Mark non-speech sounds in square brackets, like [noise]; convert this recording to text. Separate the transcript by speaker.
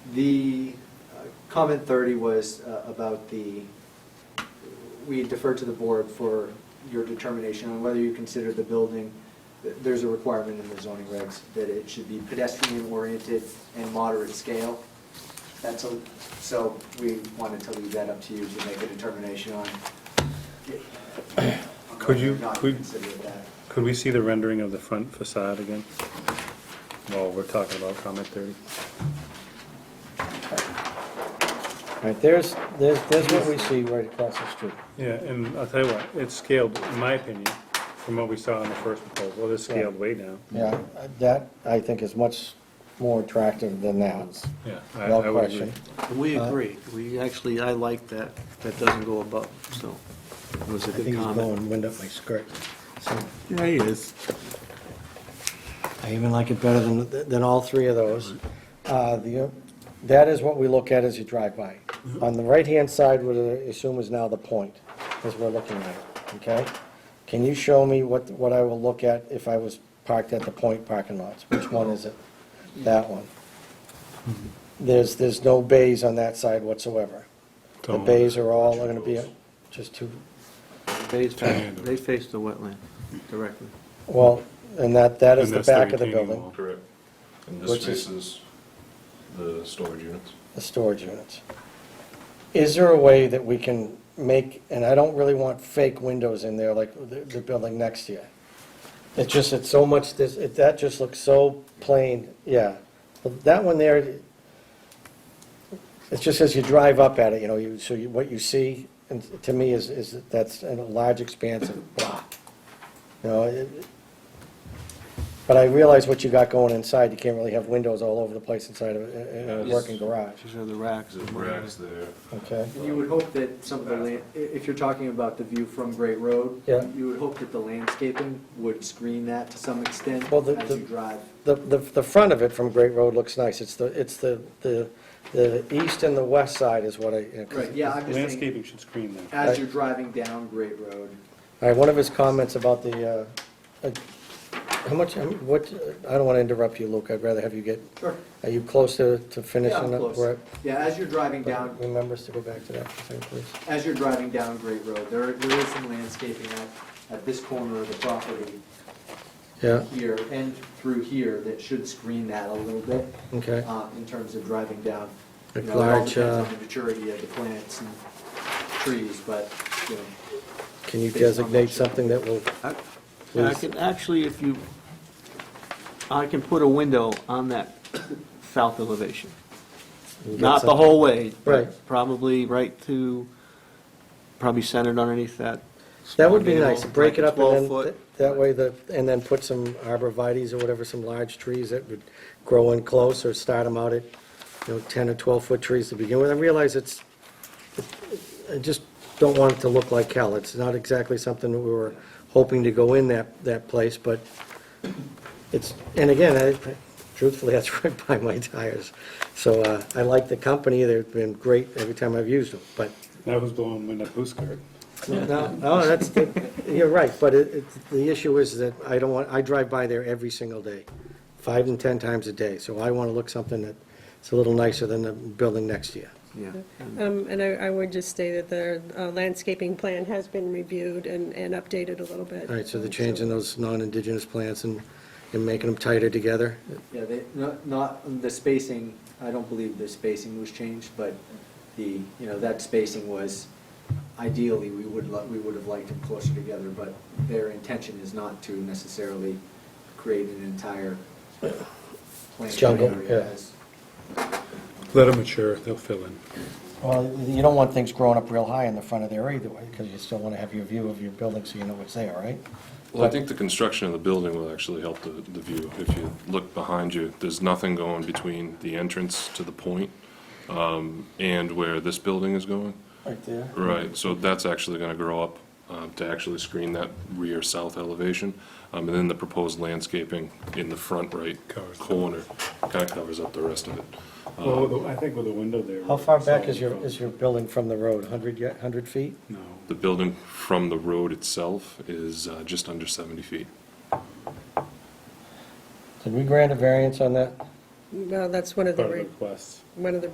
Speaker 1: The uh, comment 30 was uh, about the, we defer to the board for your determination on whether you consider the building, th- there's a requirement in the zoning regs that it should be pedestrian-oriented and moderate scale. That's, a so we wanted to leave that up to you to make a determination on. on
Speaker 2: Could you-
Speaker 1: whether or Not
Speaker 2: could-
Speaker 1: consider that.
Speaker 2: Could we see the rendering of the front facade again? While we're talking about comment thirty.
Speaker 3: Right, there's, there's, there's what we see right across the street.
Speaker 2: Yeah, and I'll tell you what, it's scaled, in my opinion, from what we saw in the first proposal, it's scaled way down.
Speaker 3: Yeah, that, I think, is much more attractive than that,
Speaker 2: Yeah, I
Speaker 3: no
Speaker 2: I would agree.
Speaker 3: question.
Speaker 4: We
Speaker 3: Uh,
Speaker 4: agree. We actually, I like that. That doesn't go above, so it was a
Speaker 3: I think
Speaker 4: good
Speaker 3: he's
Speaker 4: comment.
Speaker 3: blowing wind up my skirt. So,
Speaker 4: Yeah, he is.
Speaker 3: I even like it better than, than all three of those. Uh, the, that is what we look at as you drive by.
Speaker 2: Mm-hmm.
Speaker 3: On the right-hand side, what I assume is now the point, as we're looking at it, okay? Can you show me what, what I will look at if I was parked at the point parking lots? Which one is it? That one. There's, there's no bays on that side whatsoever. The
Speaker 2: Don't-
Speaker 3: bays are all gonna be just two,
Speaker 4: They face, they face the wetland directly.
Speaker 3: well, and that, that is
Speaker 2: And
Speaker 3: the
Speaker 2: that's the
Speaker 3: back of the
Speaker 2: retaining
Speaker 3: building,
Speaker 2: wall.
Speaker 5: Correct. And
Speaker 3: Which is-
Speaker 5: this faces the storage units.
Speaker 3: the storage units. Is there a way that we can make, and I don't really want fake windows in there like the, the building next to you. It just, it's so much, this, it, that just looks so plain, yeah. But That one there, it's just as you drive up at it, you know, you, so you, what you see, and to me is, is that's a large expanse of block. You know, it, But I realize what you got going inside, you can't really have windows all over the place inside of a- a, a
Speaker 5: Yeah.
Speaker 3: working garage,
Speaker 4: These are the racks.
Speaker 5: There's racks there.
Speaker 3: okay?
Speaker 1: And you would hope that some of the, lan- i- if you're talking about the view from Great Road,
Speaker 3: Yeah.
Speaker 1: you would hope that the landscaping would screen that to some extent
Speaker 3: Well, the-
Speaker 1: as
Speaker 3: the-
Speaker 1: you drive.
Speaker 3: The, the, the front of it from Great Road looks nice, it's the, it's the, the, the east and the west side is what I. you know, 'cause-
Speaker 1: Right, yeah, I'm just saying,
Speaker 2: Landscaping should screen that.
Speaker 1: as you're driving down Great Road,
Speaker 3: All right, one of his comments about the, uh, uh, how much, how mu- what, I don't want to interrupt you, Luke, I'd rather have you get,
Speaker 1: sure,
Speaker 3: are you close to, to
Speaker 1: yeah, I'm
Speaker 3: finishing up?
Speaker 1: close.
Speaker 3: where-
Speaker 1: Yeah, as you're driving down,
Speaker 3: Remember us to go back to that, for a second, please.
Speaker 1: as you're driving down Great Road, there, there is some landscaping at, at this corner of the property
Speaker 3: Yeah,
Speaker 1: here and through here that should screen that a little bit,
Speaker 3: okay,
Speaker 1: uh, in terms of driving down.
Speaker 3: A
Speaker 1: You know, it all
Speaker 3: large,
Speaker 1: depends
Speaker 3: uh,
Speaker 1: on the maturity of the plants and trees, but, you know,
Speaker 3: can you
Speaker 1: Based on
Speaker 3: designate
Speaker 1: what you-
Speaker 3: something that will,
Speaker 4: I I can, actually, if you, I can put a window on that south elevation.
Speaker 3: you get
Speaker 4: Not the
Speaker 3: something-
Speaker 4: whole way. but
Speaker 3: Right.
Speaker 4: Probably right to, probably centered underneath that.
Speaker 3: That would be
Speaker 4: small
Speaker 3: nice,
Speaker 4: gable,
Speaker 3: break
Speaker 4: like
Speaker 3: it
Speaker 4: a
Speaker 3: up and
Speaker 4: 12
Speaker 3: then, th-
Speaker 4: foot.
Speaker 3: that way the, and then put some arborvitae's or whatever, some large trees that would grow in close or start them out at, you know, 10 or 12-foot trees to begin with. I realize it's, I just don't want it to look like hell. It's not exactly something that we were hoping to go in that, that place, but it's, and again, I- truthfully, [laughs] that's right by my tires. So uh, I like the company, they've been great every time I've used them, but
Speaker 2: That was blowing wind up whose skirt?
Speaker 3: no, no, that's, you're right, but it, it- the issue is that I don't want, I drive by there every single day, five and 10 times a day, so I want to look something that's a little nicer than the building next to you.
Speaker 4: Yeah.
Speaker 6: Um, And I I would just say that the uh, landscaping plan has been reviewed and and updated a little bit.
Speaker 3: All right, so they're changing those non-indigenous plants and, and making them tighter together?
Speaker 1: Yeah, they, not, not, the spacing, I don't believe the spacing was changed, but the, you know, that spacing was, ideally, we would, lo- we would have liked them closer together, but their intention is not to necessarily create an entire planting
Speaker 3: Jungle,
Speaker 1: area
Speaker 3: yeah.
Speaker 1: as-
Speaker 2: Let them mature, they'll fill in.
Speaker 3: Well, you don't want things growing up real high in the front of there either way, because you still want to have your view of your building so you know what's there, right?
Speaker 5: Well, I think the construction of the building will actually help the, the view. If you look behind you, there's nothing going between the entrance to the point um, and where this building is going.
Speaker 3: Right there.
Speaker 5: Right, so that's actually going to grow up um, to actually screen that rear south elevation. Um, And then the proposed landscaping in the front right
Speaker 2: Covers.
Speaker 5: corner kind of covers up the rest of it.
Speaker 2: Well, with Oh, the- I think with the window there.
Speaker 3: How far back is
Speaker 2: solid
Speaker 3: your,
Speaker 2: from-
Speaker 3: is your building from the road, 100, yet? 100 feet?
Speaker 2: No,
Speaker 5: The building from the road itself is uh, just under 70 feet.
Speaker 3: Did we grant a variance on that?
Speaker 2: well, that's one of the,
Speaker 6: part of the
Speaker 2: re-
Speaker 6: request.
Speaker 2: one of the